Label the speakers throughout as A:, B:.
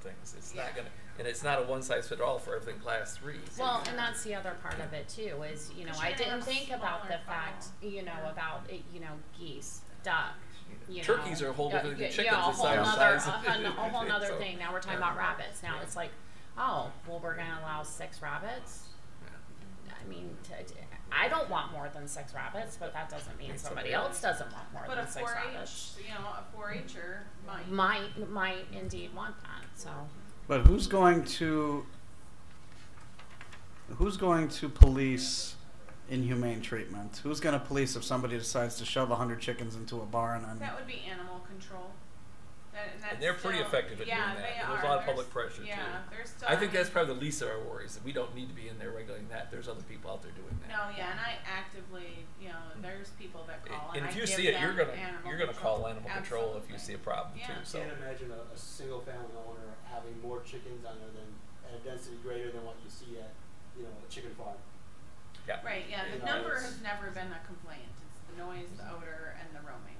A: things. It's
B: Yeah.
A: not gonna, and it's not a one size fit all for everything class three. so
C: Well,
A: you-
C: and that's the other part of it too, is, you know,
B: Because
C: I
B: you're gonna
C: didn't
B: have a
C: think about the
B: smaller
C: fact,
B: funnel.
C: you know,
B: Yeah.
C: about, it, you know, geese, duck, you know.
A: Turkeys are a whole
C: Yeah,
A: different than
C: yeah,
A: chickens, the
C: Yeah,
A: size-
C: a whole nother, a
A: size of-
C: hun- a whole nother
A: so,
C: thing, now we're talking
A: yeah.
C: about rabbits, now it's like, oh, well, we're gonna allow six rabbits?
A: Yeah.
C: I mean, t- t- I don't want more than six rabbits, but that doesn't mean
A: It's
C: somebody
A: okay.
C: else doesn't want more
B: But a
C: than six Mm-hmm.
B: four
C: rabbits.
B: H, you know, a four Her might.
C: Might, might indeed want that, so.
D: But who's going to who's going to police inhumane treatment? Who's going to police if somebody decides to shove hundred chickens into a barn and
B: That would be animal control. That, and, that's
A: And they're pretty
B: still-
A: effective at doing
B: yeah,
A: that.
B: They
A: There's a
B: are.
A: lot of
B: There's-
A: public pressure, too.
B: yeah, there's still.
A: I think that's probably the least of our worries. that We don't need to be in there regulating that. There's other people out there doing that.
B: No, yeah, and I actively, you know, there's people that call.
A: And
B: I
A: if you
B: give
A: see it,
B: them
A: you're gonna
B: animal
A: you're gonna
B: control.
A: call animal control if you
B: Absolutely.
A: see a problem
B: Yeah.
A: too.
B: Yeah.
A: So
E: Can't imagine a, a single family owner having more chickens on there than, at a density greater than what you see at, you know, a chicken farm.
A: yeah.
B: Right, yeah,
E: You
B: the
E: know,
B: number
E: it's-
B: has never been a complaint, it's the noise, the odor, and the roaming.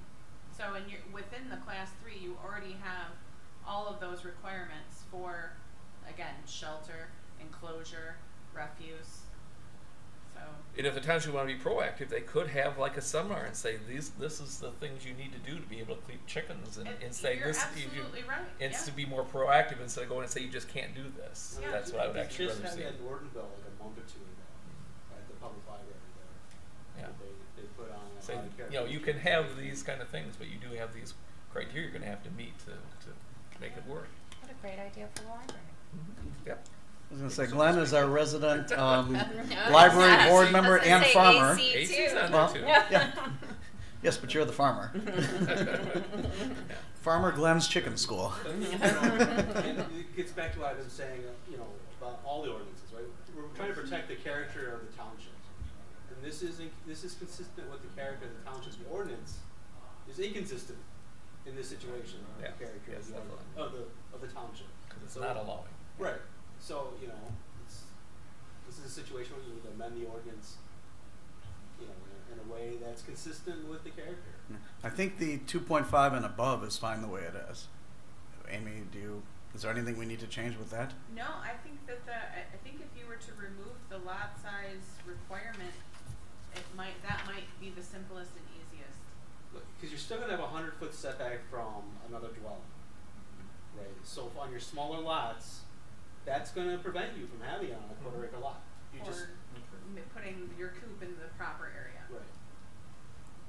B: So in your, within the class three, you already have all of those requirements for, again, shelter, enclosure, refuse. So,
A: And if the township want to be proactive, they could have like a seminar and say these this is the things you need to do to be able to keep chickens and,
B: It-
A: and say
B: you're
A: this
B: absolutely
A: you,
B: right,
A: and
B: yeah.
A: to be more proactive instead of going and say you just can't do this.
B: Yeah.
A: That's what I would
E: They
A: actually
E: just
A: rather
E: had
A: see.
E: that in Ortonville like a month or two ago, at the public library there.
A: Yeah.
E: that They, they put on. a
A: Say
E: lot of
A: you know
E: characters.
A: you can have these kind of things, but you do have these criteria you're going to have to meet to, to make it work.
C: What a great idea for the library.
A: Yep.
D: I was going to say Glenn is our resident um,
C: No,
D: library
C: it's
D: board
C: not.
D: member
C: Let's
D: and
C: say
D: farmer.
C: AC
A: AC's
C: too.
A: on
D: Well,
A: there too.
D: yeah. Yes, but you're the farmer.
A: Yeah.
D: farmer Glenn's Chicken School.
E: And it gets back to what I've been saying, uh, you know, about all the ordinances, right? We're trying to protect the character of the township. And this is, in- this is consistent with the character of the township's The ordinance, is inconsistent in this situation, with
A: Yeah,
E: the character
A: yes,
E: of the,
A: definitely.
E: ord- of the, of the township.
A: 'Cause it's
E: So-
A: not allowing.
E: Right, so, you know, it's, this is a situation where you would amend the ordinance, you know, in a, in a way that's consistent with the character.
A: Mm-hmm.
D: I think the 2.5 and above is fine the way it is. Amy, do you? Is there anything we need to change with that?
B: no, I think that the, I, I think if you were to remove the lot size requirement, it might, that might be the simplest and easiest.
E: Because you're still gonna have a hundred foot setback from another dwelling, right? So if on your smaller lots, that's gonna prevent you from having it on a quarter acre lot. You just,
B: Or m- putting your coop in the proper area.
E: right,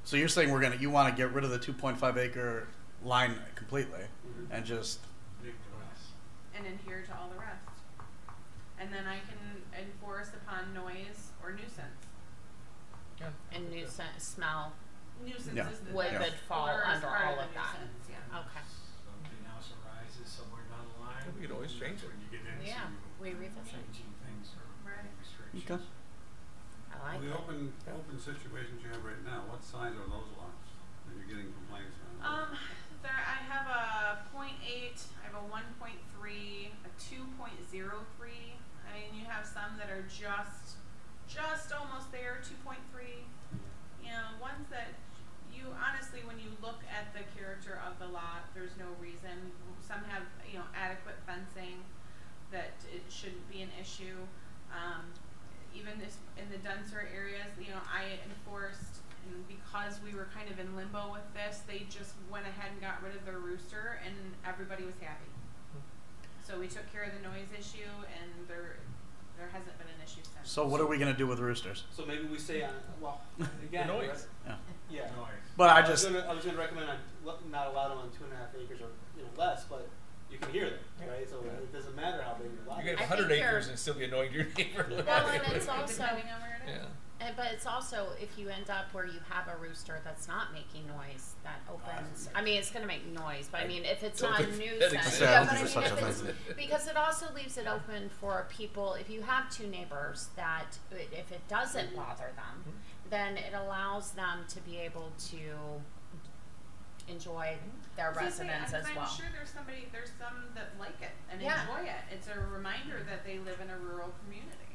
D: So you're saying we're gonna you want to get rid of the 2.5 acre line completely
E: Mhm.
D: and just
B: and adhere to all the rest. And then I can enforce upon noise or nuisance.
A: Yeah.
C: And nuisance smell.
B: Nuisance
D: Yeah.
B: is the
C: Would-
B: the
D: would
C: fall
B: odor is
C: under
B: part
C: all
B: the
C: of that.
B: nuisance, yeah.
C: Okay.
F: Something else arises somewhere down the line.
A: We could always change it.
F: When you get into
C: Yeah, we revisit.
F: changing things or
B: Right.
F: restrictions.
D: okay.
C: I like
G: The
C: it.
G: open, open situations you have right now, what size are those lots that you're getting complaints on?
B: Um, there I have a point eight, I have a one point three, a two point zero three. I mean, you have some that are just, just almost there, two point three. You know, ones that you honestly, when you look at the character of the lot, there's no reason. Some have, you know, adequate fencing that it shouldn't be an issue. Um, even this, in the denser areas, you know, I enforced, and because we were kind of in limbo with this, they just went ahead and got rid of their rooster and everybody was happy. So we took care of the noise issue and there, there hasn't been an issue since.
D: So what are we gonna do with roosters?
E: so maybe we say on, well, again.
A: The noise.
E: right-
D: Yeah.
E: Yeah.
F: Noise.
D: But I
E: was
D: just
E: gonna- I was gonna recommend on, lo- not allow them on two and a half acres or, you know, less, but you can hear them,
A: Yeah.
E: right? So
A: Yeah.
E: it doesn't matter how big your lot
A: You can
E: is.
A: have
C: I
A: 100
C: think
A: acres
C: you're-
A: and still be annoying to your neighbor.
C: Well, and it's also-
B: Depending on where it is.
A: yeah.
C: And- But it's also if you end up where you have a rooster that's not making noise, that opens. I mean, it's going to make noise, but I mean, if it's
A: Oh, I
C: not a
A: don't think
C: nuisance,
A: that exists.
D: Yeah, I
C: yeah,
D: don't
C: but I
D: think
C: mean,
D: there's
C: if
D: such a
C: it's, because it also leaves it open for people. If you have two neighbors that, i- if it doesn't bother them,
A: Mm-hmm.
C: then it allows them to be able to enjoy
A: Mm-hmm.
C: their
B: I was gonna say,
C: residence as
B: I'm,
C: well.
B: I'm sure there's somebody, there's some that like it and
C: Yeah.
B: enjoy it. It's a reminder that they live in a rural community.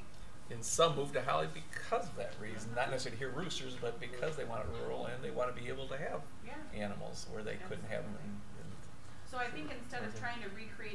A: And some move to Holly because of that reason, not necessarily to hear roosters, but because they want it rural and they want to be able to have
B: Yeah.
A: animals where they couldn't have them. In, in
B: So I think instead of trying to recreate